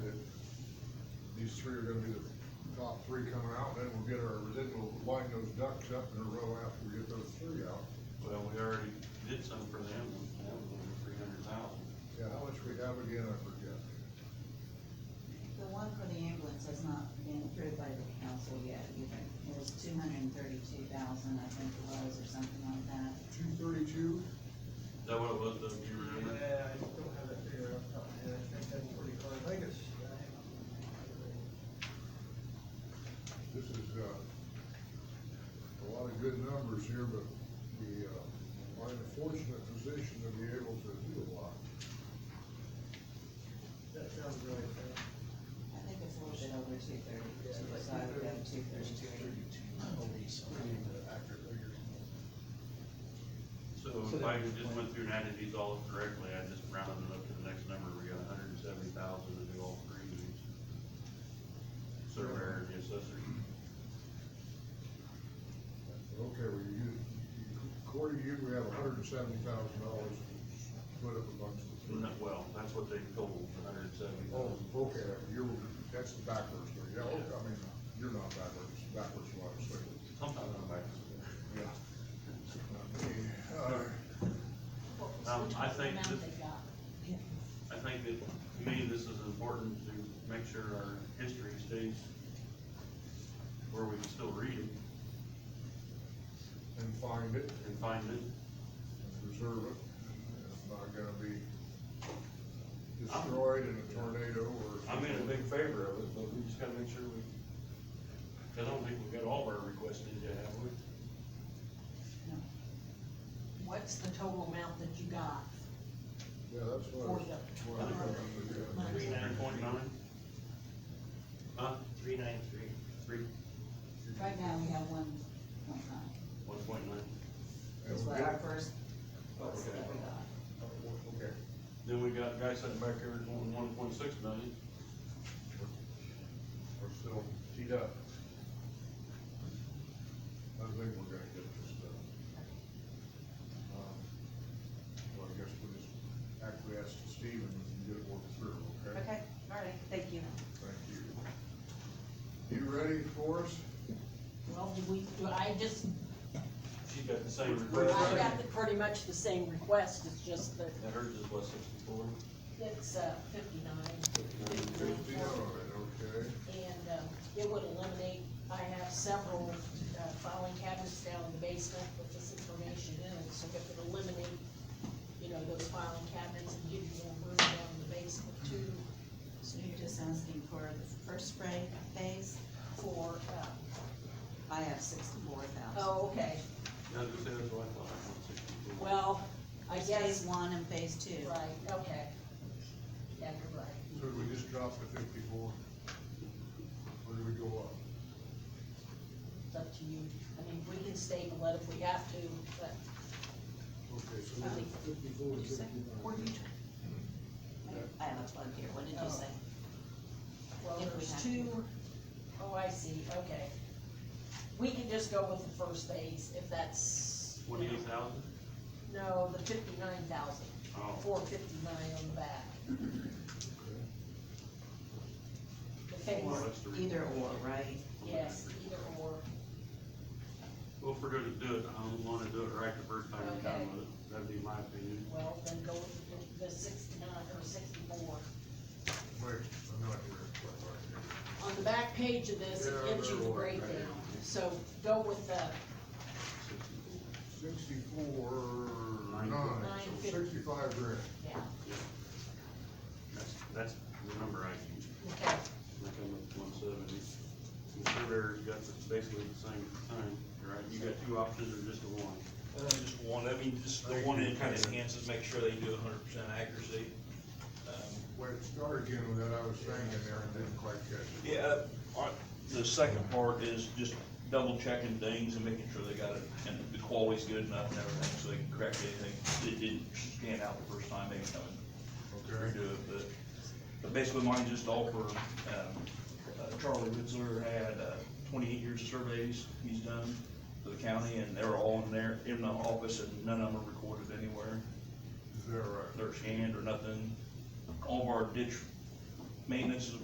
these three are gonna be the top three coming out, then we'll get our, then we'll line those ducks up in a row after we get those three out. Well, we already did some for them, and that was over three hundred thousand. Yeah, how much we have again, I forget. The one for the ambulance has not been approved by the council yet either. It was two hundred and thirty-two thousand, I think it was, or something like that. Two thirty-two, Is that what it was, Doug, do you remember? Yeah, I just don't have that figure off the top of my head, I think that's pretty hard, I think it's, uh, hang on. this is, uh, a lot of good numbers here, but we, uh, are in a fortunate position to be able to do a lot. that sounds really fair. I think it's a little bit over two thirty-two, so I would go two thirty-two. So if I just went through and added these all up correctly, I just rounded it up to the next number, we got hundred and seventy thousand to do all three of these. Surveyor, and the assessor, Okay, well, you, according to you, we have hundred and seventy thousand dollars split up amongst the three. No, well, that's what they told, hundred and seventy Oh, thousand. okay, you're, that's the backwards, thing. yeah, okay, I mean, you're not backwards, backwards, what I was thinking. Sometimes I'm back. Yeah. Not me. Uh, Um, I think this, I think that, to me, this is important to make sure our history stays where we can still read it And find it, and find it. and preserve it, and it's not gonna be destroyed in a tornado or. I'm in a big favor of it, but we just gotta make sure we, 'cause I don't think we got all of our requests in yet, have we? What's the total amount that you got? Yeah, that's what. I was- what I was thinking, Three nine point nine? Huh? Three nine three. Three, Right now, we have one point nine, one point nine? yeah. is what our first, Okay. list that we got. Okay, Then we got a guy sitting back here doing one point six million. we're still teed up. I think we're gonna get this done. Um, Well, I guess we'll just acquiesce to Steve and get it worked through, okay? Okay, all right, thank you. Thank you. You ready for us? Well, do we, do I just, She's got the same I request. got the- pretty much the same request, it's just that Now hers is what, sixty-four? it's uh, fifty-nine, Fifty, all right, okay. and um, it would eliminate, I have several uh, filing cabinets down in the basement with this information in it, so it would eliminate, you know, those filing cabinets and give you more room down in the basement too, So you're just asking for the first spray phase, for, uh, I have sixty-four thousand. oh, okay, Yeah, I was gonna say, that's what I thought, one sixty-four. well, I Phase guess, one and phase two. right, okay. Yeah, you're right. So did we just drop the fifty-four? Or do we go up? It's up to you. I mean, we can stable it if we have to, but Okay, so I think fifty-four to Were you fifty-nine. I have a plug here, what did you say? Well, If we have there's to. two, oh, I see, okay. We can just go with the first phase if that's. Twenty-eight thousand? No, the fifty-nine thousand, Oh, four fifty-nine on the back. The phase, Well, that's the re- Either or, right? yes, either or. Well, if we're gonna do it, I don't wanna do it right the first time we Okay. come with it, that'd be my opinion. Well, then go with the sixty-nine or sixty-four. Wait, I'm not here, I'm right here. On the back page of this, it Yeah, gives you the they're all right. breakdown. So go with the Sixty-four. Sixty-four, Nine. nine, Nine so fifty. sixty-five grand. Yeah, That's, that's the number I use, okay, I come up with one seventy. The surveyor's got the- basically the same thing, right? You got two options or just the one? Uh, just one, I mean, just the one that kind of enhances, make sure they do hundred percent accuracy. Um, Wait, start again with that, I was saying in there and didn't quite catch it. Yeah, uh, all right, the second part is just double checking things and making sure they got it, and the quality's good enough and everything, so they can correct anything that didn't stand out the first time they come and Okay. redo it, but, but basically mine just all for, um, uh, Charlie Ritzler had, uh, twenty-eight years of surveys he's done for the county, and they're all in there, in the office, and none of them are recorded anywhere Is that right? their hand or nothing. All of our ditch maintenance is